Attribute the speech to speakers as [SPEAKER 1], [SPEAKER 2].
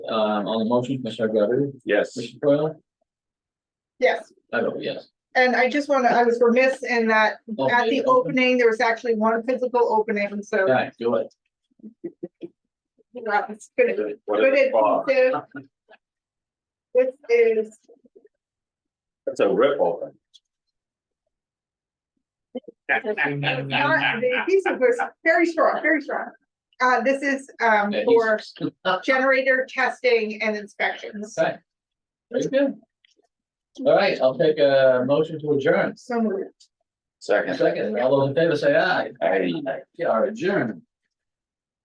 [SPEAKER 1] Um, on the motion, Commissioner Godu,
[SPEAKER 2] Yes.
[SPEAKER 1] Commissioner Coyle,
[SPEAKER 3] Yes,
[SPEAKER 1] I vote yes.
[SPEAKER 3] and I just wanna, I was remiss in that at the
[SPEAKER 1] Okay, open.
[SPEAKER 3] opening, there was actually one physical opening, so
[SPEAKER 1] Yeah, do it.
[SPEAKER 3] that's good.
[SPEAKER 2] What
[SPEAKER 3] Good
[SPEAKER 2] is it for?
[SPEAKER 3] adhesive. This is,
[SPEAKER 2] That's a rip open.
[SPEAKER 3] not- the adhesive was very strong, very strong. Uh, this is, um, for generator testing and inspections.
[SPEAKER 1] Okay. Very good. All right, I'll take a motion to adjourn.
[SPEAKER 3] So moved.
[SPEAKER 2] Second.
[SPEAKER 1] Second, all those in favor say aye.
[SPEAKER 2] Aye.
[SPEAKER 1] Yeah, adjourn.